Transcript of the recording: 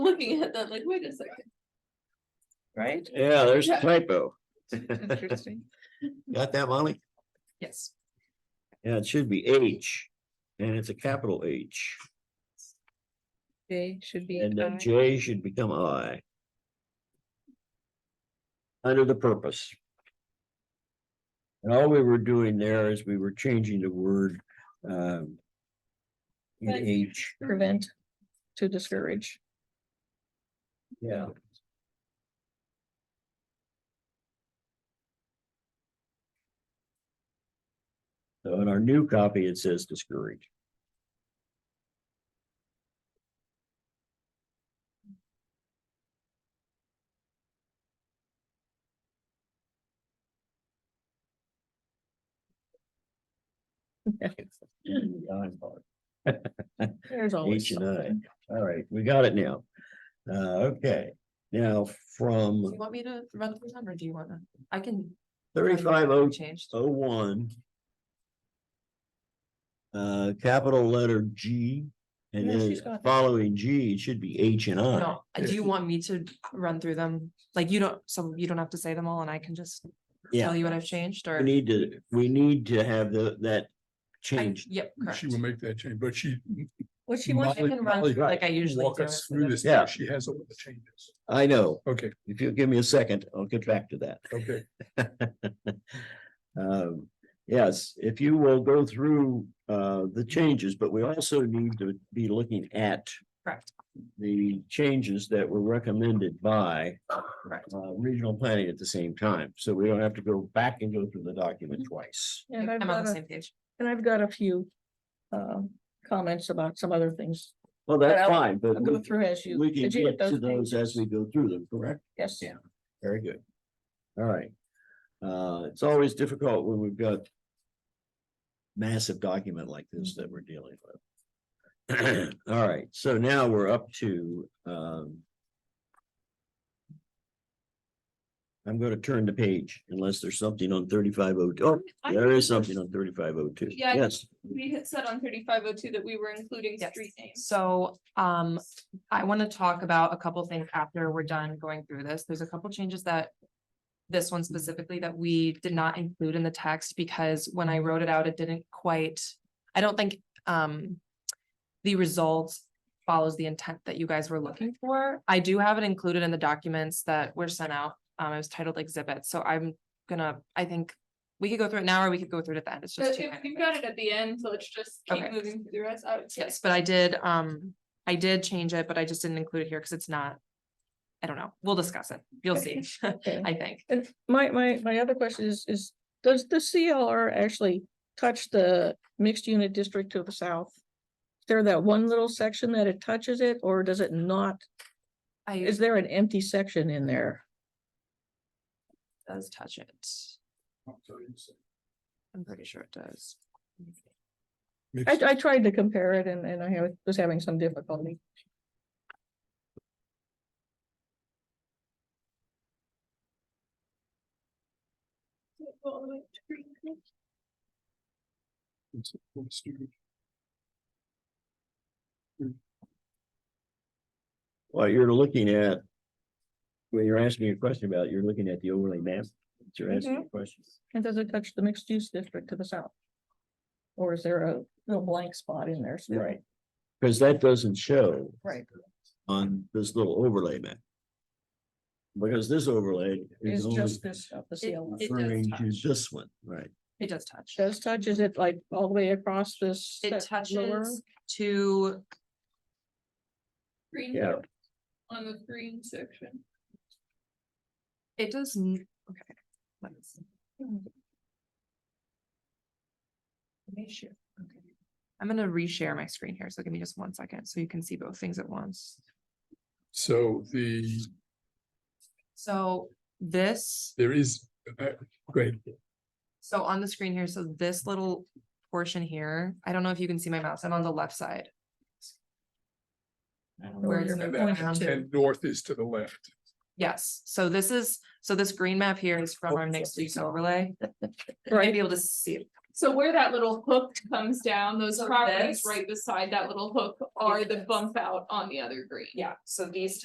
looking at that like, wait a second. Right? Yeah, there's a Yeah. typo. Interesting. Got that, Molly? Yes. Yeah, it should be H. And it's a capital H. They should be. uh, And I. that J should become I. Under the purpose. And all we were doing there is we were changing the word, um. In Right. H, Prevent to discourage. yeah. So in our new copy, it says discourage. Behind part. There's always. H and I. something. All right, we got it now. Uh, okay, now Do you from want me to run through them or do you wanna? I can. thirty-five oh Changed. oh one. Uh, capital letter G, and Yeah, then she's got that. following G, it should be H and I. No, uh, do you want me to run through them? Like you don't, some, you don't have to say them all and I can just tell Yeah, you what I've changed we or? need to, we need to have the, that I- changed. Yep, correct. She will make that change, but she. What she wants, I Molly- can run Molly, through like I usually Walk do. us through this. Yeah. She has all the changes. I know, Okay, if you give me a second, I'll get back to that. okay. Um, yes, if you will go through, uh, the changes, but we also need to be looking at Correct, the changes that were recommended by correct. uh regional planning at the same time, so we don't have to go back and go through the document Mm-hmm. twice. And I've I'm on got the a, same page. and I've got a few um comments about some other things. Well, But that's I'll- fine, but I'll go we- through as you. we can as you get to those those as changes. we go through them, correct? Yes, Yeah. Very good. All right. Uh, it's always difficult when we've got massive document like this that we're dealing with. All right, so now we're up to, um, I'm gonna turn the page unless there's something on thirty-five oh, oh, I there think is something on thirty-five oh two. Yeah, I- Yes, We had said on thirty-five oh two that we were including Yes. street names. So, um, I want to talk about a couple things after we're done going through this. There's a couple changes that. This one specifically that we did not include in the text because when I wrote it out, it didn't quite, I don't think, um. The result follows the intent that you guys were looking for. I do have it included in the documents that were sent out. Um, it was titled exhibit, so I'm gonna, I think. We could go through it now or we could go through it at the end. It's just. But two if minutes. you've got it at the end, so let's just keep Okay. moving through the rest. I would say. Yes, but I did, um, I did change it, but I just didn't include it here because it's not. I don't know. We'll discuss it. You'll see, okay. I think. And my, my, my other question is, is does the CLR actually touch the mixed unit district to the south? Is there that one little section that it touches it, or does it not? I, Is it there an empty section in there? does touch it. I'm pretty sure it does. I, Mixed- I tried to compare it and, and I have- was having some difficulty. it's full student. well, you're looking at, when you're asking a question about, it, you're looking at the overlay map, that you're Mm-hmm. asking a question. And does it touch the mixed use district to the south? Or is there a little blank spot in there? still? Right. Cause that doesn't show. Right. On this little overlay map. Because this overlay is It's only just this, stuff, the CLR. It- it does referring to touch. this one, right? It does touch. Does touch, is it like all the way across this? It that lower? touches to, Green Yeah. On the green section. it does, n- okay. let's- Let me share. Okay. I'm gonna reshare my screen here, so give me just one second, so you can see both things at once. So the, So this there is, uh, great, So on the screen here, so this little portion here, I don't know if you can see my mouse, I'm on the left side. Where it's and moving that, around to, and north is to the left. yes, so this is, so this green map here is from our mixed use overlay. You might be able to see it. So where that little hook comes down, those So properties this- right beside that little hook are the Yes. bump out on the other green. Yeah, so these